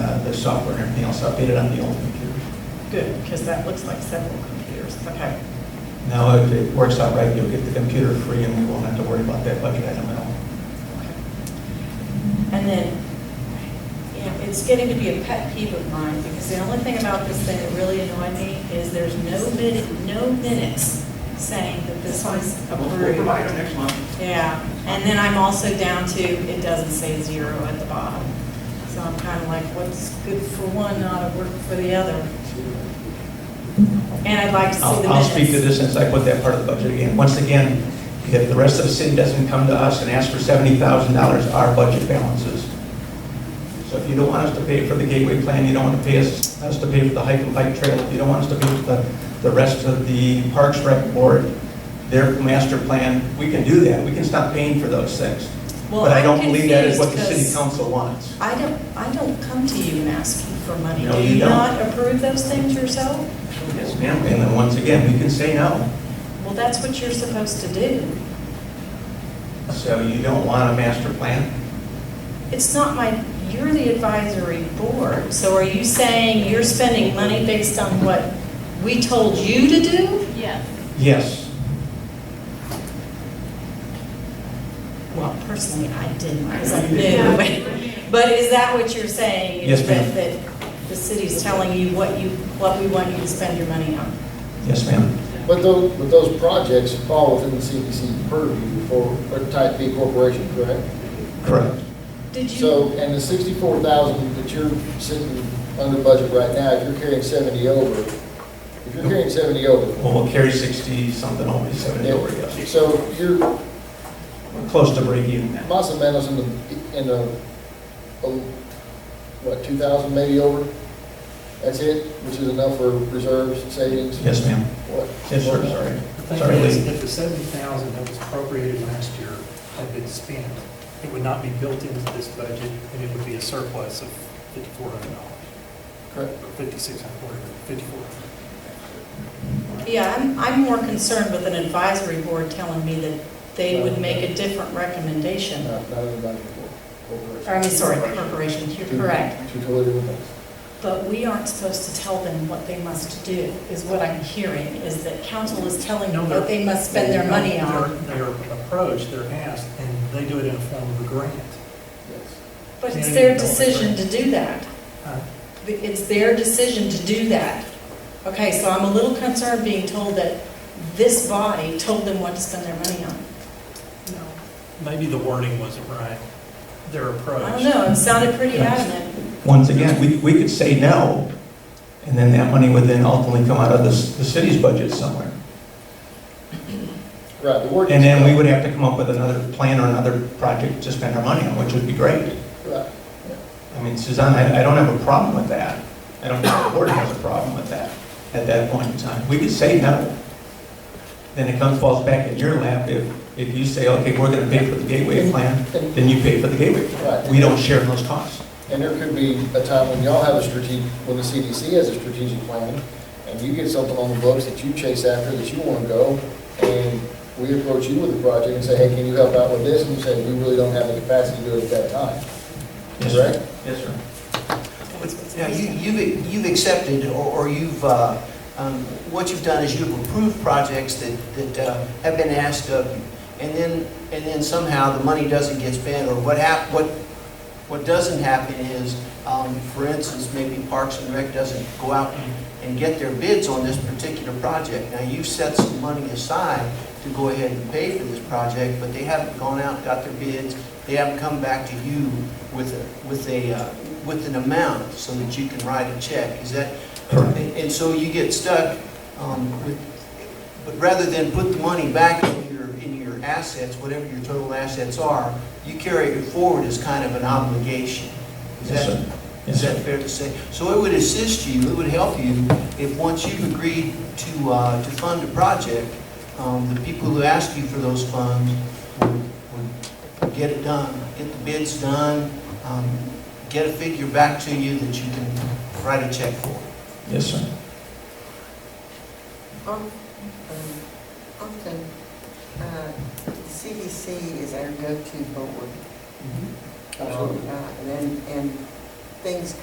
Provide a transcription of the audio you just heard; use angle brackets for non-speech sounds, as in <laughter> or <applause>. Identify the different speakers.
Speaker 1: uh, software and everything else updated on the old computers.
Speaker 2: Good, because that looks like several computers. Okay,
Speaker 1: Now, if it works out right, you'll get the computer free and we won't have to worry about that budget item at all.
Speaker 2: okay.
Speaker 3: And then, you know, it's getting to be a pet peeve of mine, because the only thing about this thing that really annoyed me is there's no minute, no minutes saying that this was approved.
Speaker 1: it next month.
Speaker 3: Yeah, and then I'm also down to, it doesn't say zero at the bottom. So I'm kind of like, what's good for one, not a work for the other? And I'd like to see the
Speaker 1: I'll,
Speaker 3: minutes.
Speaker 1: I'll speak to this since I put that part of the budget again. Once again, if the rest of the city doesn't come to us and ask for seventy thousand dollars, our budget balances. So if you don't want us to pay for the gateway plan, you don't want to pay us, us to pay for the hike and bike trail, if you don't want us to pay for the, the rest of the Parks Rec Board, their master plan, we can do that. We can stop paying for those things.
Speaker 3: Well,
Speaker 1: But I
Speaker 3: I'm
Speaker 1: don't believe that is what the
Speaker 3: confused
Speaker 1: city
Speaker 3: 'cause-
Speaker 1: council wants.
Speaker 3: I don't, I don't come to you and ask you for money.
Speaker 1: No,
Speaker 3: Do
Speaker 1: you
Speaker 3: you
Speaker 1: don't.
Speaker 3: not approve those things yourself?
Speaker 1: Yes, ma'am. And then once again, we can say no.
Speaker 3: Well, that's what you're supposed to do.
Speaker 1: So you don't want a master plan?
Speaker 3: It's not my, you're the advisory board, so are you saying you're spending money based on what we told you to do?
Speaker 4: Yes.
Speaker 1: Yes.
Speaker 3: Well, personally, I didn't, because I
Speaker 1: Yeah.
Speaker 3: knew, but- <laughs> but is that what you're saying? is
Speaker 1: Yes, ma'am.
Speaker 3: that- That the city's telling you what you, what we want you to spend your money on?
Speaker 1: Yes, ma'am.
Speaker 5: But those, but those projects fall within the CDC purview for a type B corporation, correct?
Speaker 1: Correct.
Speaker 3: Did you,
Speaker 5: So, and the sixty-four thousand that you're sitting under budget right now, if you're carrying seventy over, if you're carrying seventy over,
Speaker 1: Well, we'll carry 60 something, always 70 over, yes.
Speaker 5: so you're
Speaker 1: We're close to break even now.
Speaker 5: plus or minus in the, in the, oh, what, two thousand maybe over? That's it, which is enough for reserves, savings?
Speaker 1: Yes, ma'am.
Speaker 5: What?
Speaker 1: Yes, sir, sorry.
Speaker 6: The
Speaker 1: Sorry,
Speaker 6: thing is,
Speaker 1: Lee.
Speaker 6: if the seventy thousand that was appropriated last year had been spent, it would not be built into this budget, and it would be a surplus of fifty-four hundred dollars,
Speaker 5: Correct.
Speaker 6: or fifty-six hundred, whatever, fifty-four.
Speaker 3: yeah, I'm, I'm more concerned with an advisory board telling me that they would make a different recommendation.
Speaker 5: Not, not in the budget
Speaker 3: Or,
Speaker 5: corporation.
Speaker 3: I mean, sorry, corporations, you're
Speaker 5: Two-
Speaker 3: correct.
Speaker 5: Two totally different things.
Speaker 3: But we aren't supposed to tell them what they must do, is what I'm hearing, is that council is telling them what they must spend their money on.
Speaker 6: Their approach, they're asked, and they do it in the form of a grant.
Speaker 5: Yes.
Speaker 3: But it's their decision to do that.
Speaker 6: Uh,
Speaker 3: It's their decision to do that. Okay, so I'm a little concerned being told that this body told them what to spend their money on.
Speaker 6: No. Maybe the wording wasn't right, their approach.
Speaker 3: I don't know, it sounded pretty adamant.
Speaker 1: Once again, we, we could say no, and then that money would then ultimately come out of the, s- the city's budget somewhere.
Speaker 5: Right, the word.
Speaker 1: And then we would have to come up with another plan or another project to spend our money on, which would be great.
Speaker 5: Right,
Speaker 1: I mean, Suzanne, I, I don't have a problem with that. I don't think the board has a problem with that at that point in time. We could say no. Then it comes, falls back in your lap if, if you say, okay, we're gonna pay for the gateway plan, then you pay for the gateway plan. We don't share in those costs.
Speaker 5: and there could be a time when y'all have a strategic, when the CDC has a strategic plan, and you get something on the books that you chase after, that you wanna go, and we approach you with a project and say, hey, can you help out with this? And you say, we really don't have the capacity to do it at that time.
Speaker 1: Yes, sir.
Speaker 5: Correct.
Speaker 1: Yes, sir.
Speaker 7: Now, you- you've, you've accepted, or or you've, uh, um, what you've done is you've approved projects that, that uh, have been asked of you, and then, and then somehow the money doesn't get spent, or what hap, what, what doesn't happen is, um, for instance, maybe Parks and Rec doesn't go out and- and get their bids on this particular project. Now, you've set some money aside to go ahead and pay for this project, but they haven't gone out, and got their bids, they haven't come back to you with a, with a, uh, with an amount so that you can write a check. Is that,
Speaker 1: Correct.
Speaker 7: and and so you get stuck um, with, but rather than put the money back in your, in your assets, whatever your total assets are, you carry it forward as kind of an obligation. Is
Speaker 1: Yes,
Speaker 7: that-
Speaker 1: sir. Yes,
Speaker 7: is that
Speaker 1: sir.
Speaker 7: fair to say? So it would assist you, it would help you if once you've agreed to, uh, to fund a project, um, the people who ask you for those funds would, would get it done, get the bids done, um, get a figure back to you that you can write a check for.
Speaker 1: Yes, sir.
Speaker 4: Um, Often, uh, CDC is our go-to board. Uh,
Speaker 5: Absolutely.
Speaker 4: And, and Uh, things